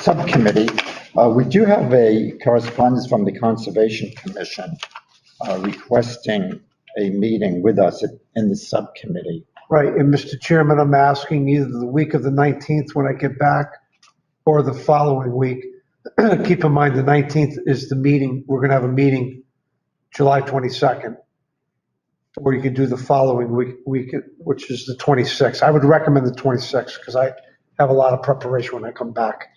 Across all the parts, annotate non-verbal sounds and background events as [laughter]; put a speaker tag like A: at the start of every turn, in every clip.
A: subcommittee. Uh, We do have a correspondence from the Conservation Commission uh, requesting a meeting with us in the subcommittee.
B: Right, and Mr. Chairman, I'm asking either the week of the 19th when I get back or the following week. [clears throat] Keep in mind, the 19th is the meeting, we're going to have a meeting July 22nd. Or you could do the following week, week, which is the 26th. I would recommend the 26th because I have a lot of preparation when I come back.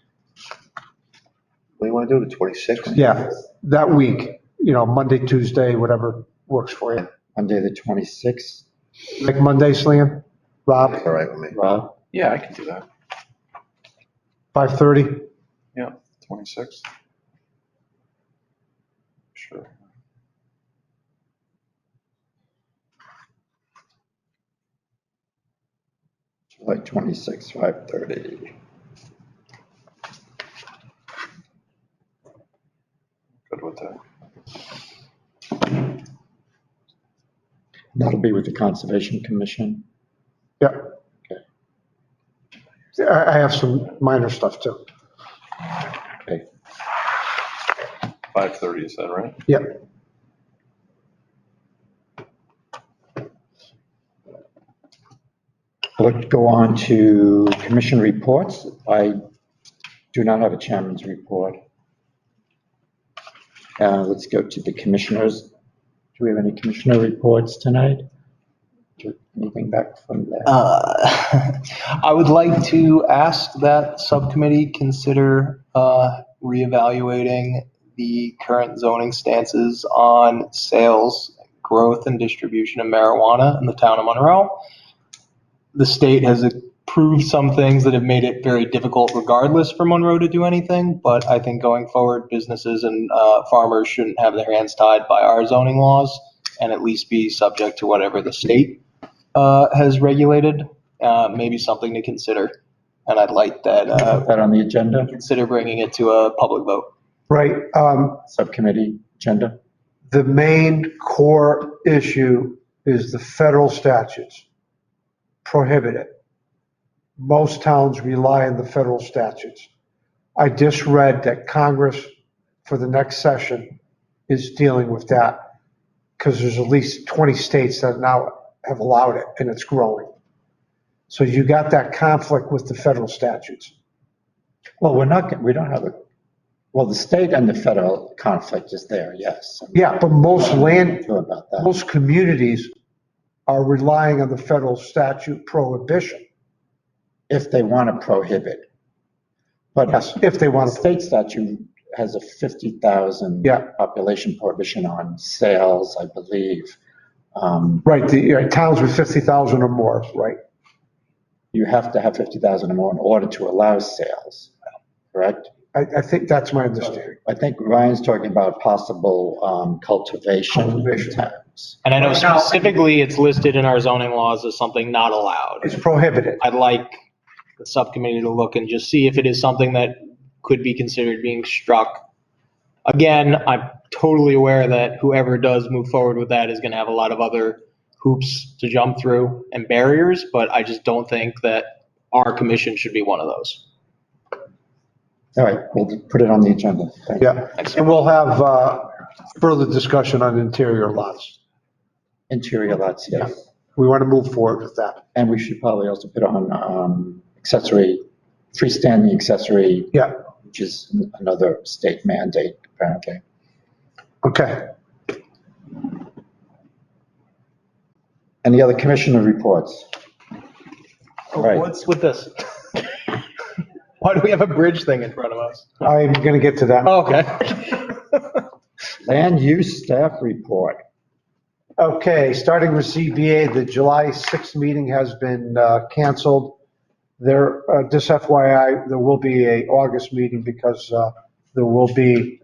C: What do you want to do, the 26th?
B: Yeah, that week, you know, Monday, Tuesday, whatever works for you.
A: Monday, the 26th,
B: Like Mondays, Liam, Rob,
C: All right with me.
A: Rob?
D: Yeah, I can do that.
B: 5:30?
D: Yeah, 26. Sure.
A: July 26th, 5:30.
D: Good with that.
A: That'll be with the Conservation Commission.
B: Yeah. Yeah, I, I have some minor stuff too.
A: Okay.
D: 5:30, is that right?
B: Yeah.
A: Let's go on to commission reports. I do not have a chairman's report. Uh, Let's go to the commissioners. Do we have any commissioner reports tonight? Do- Anything back from there?
E: Uh, [laughs] I would like to ask that subcommittee consider uh, reevaluating the current zoning stances on sales, growth, and distribution of marijuana in the town of Monroe. The state has approved some things that have made it very difficult regardless for Monroe to do anything, but I think going forward, businesses and uh, farmers shouldn't have their hands tied by our zoning laws and at least be subject to whatever the state uh, has regulated, uh, maybe something to consider. And I'd like that, uh,
A: That on the agenda,
E: consider bringing it to a public vote.
B: Right, um,
A: subcommittee agenda?
B: the main core issue is the federal statutes prohibit it. Most towns rely on the federal statutes. I just read that Congress for the next session is dealing with that because there's at least 20 states that now have allowed it and it's growing. So you got that conflict with the federal statutes.
A: Well, we're not, we don't have a, well, the state and the federal conflict is there, yes.
B: Yeah, but most land,
A: Sure About that.
B: most communities are relying on the federal statute prohibition.
A: If they want to prohibit. But
B: Yes, if they
A: The
B: want to.
A: state statute has a 50,000
B: Yeah.
A: population prohibition on sales, I believe. Um,
B: Right, the yeah, towns with 50,000 or more, right?
A: You have to have 50,000 or more in order to allow sales, correct?
B: I, I think that's my understanding.
A: I think Ryan's talking about possible um, cultivation
B: Cultivation.
A: tax.
E: And I know
B: Right now-
E: specifically it's listed in our zoning laws as something not allowed.
B: It's prohibited.
E: I'd like the subcommittee to look and just see if it is something that could be considered being struck. Again, I'm totally aware that whoever does move forward with that is going to have a lot of other hoops to jump through and barriers, but I just don't think that our commission should be one of those.
A: All right, we'll put it on the agenda. Thank you.
B: Yeah, and we'll have uh, further discussion on interior lots.
A: Interior lots, yes.
B: We want to move forward with that.
A: And we should probably also put on um, accessory, freestanding accessory,
B: Yeah,
A: which is another state mandate apparently.
B: okay.
A: Any other commissioner reports? All right.
E: What's with this? [laughs] Why do we have a bridge thing in front of us? Oh,
B: I'm going to get to that.
E: [laughs] Okay.
A: Land use staff report.
B: Okay, starting with CBA, the July 6th meeting has been uh, canceled. There, uh, just FYI, there will be a August meeting because uh, there will be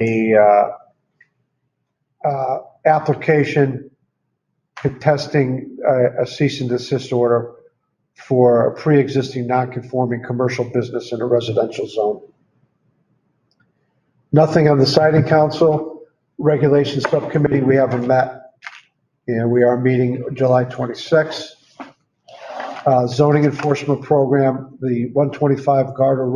B: a uh, uh, application contesting uh, a cease and desist order for a pre-existing non-conforming commercial business in a residential zone. Nothing on the siding council. Regulations Subcommittee, we haven't met. And we are meeting July 26th. Uh, Zoning Enforcement Program, the 125 Garter